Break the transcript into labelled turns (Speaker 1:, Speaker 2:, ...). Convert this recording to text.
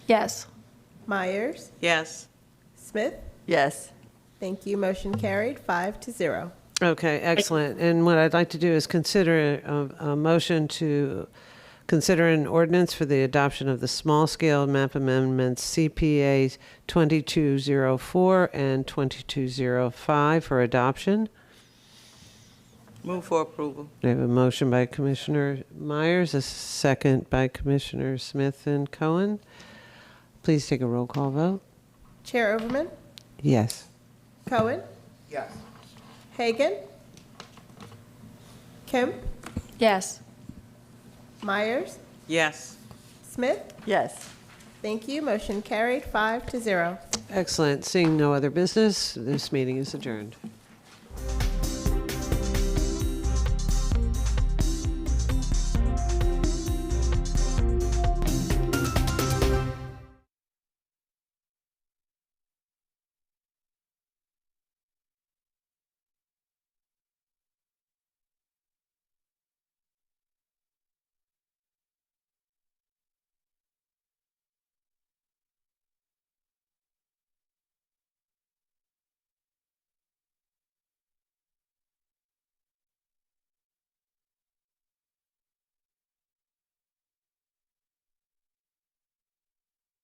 Speaker 1: Yes.
Speaker 2: Myers,
Speaker 3: Yes.
Speaker 2: Smith.
Speaker 4: Yes.
Speaker 2: Thank you. Motion carried, five to zero.
Speaker 3: Okay, excellent. And what I'd like to do is consider a, a motion to consider an ordinance for the adoption of the small scale map amendments CPA 2204 and 2205 for adoption.
Speaker 4: Move for approval.
Speaker 3: We have a motion by Commissioner Myers, a second by Commissioner Smith and Cohen. Please take a roll call vote.
Speaker 2: Chair Overman,
Speaker 3: Yes.
Speaker 2: Cohen,
Speaker 5: Yes.
Speaker 2: Hagan, Kemp,
Speaker 1: Yes.
Speaker 2: Myers,
Speaker 4: Yes.
Speaker 2: Smith.
Speaker 4: Yes.
Speaker 2: Thank you. Motion carried, five to zero.
Speaker 3: Excellent. Seeing no other business, this meeting is adjourned.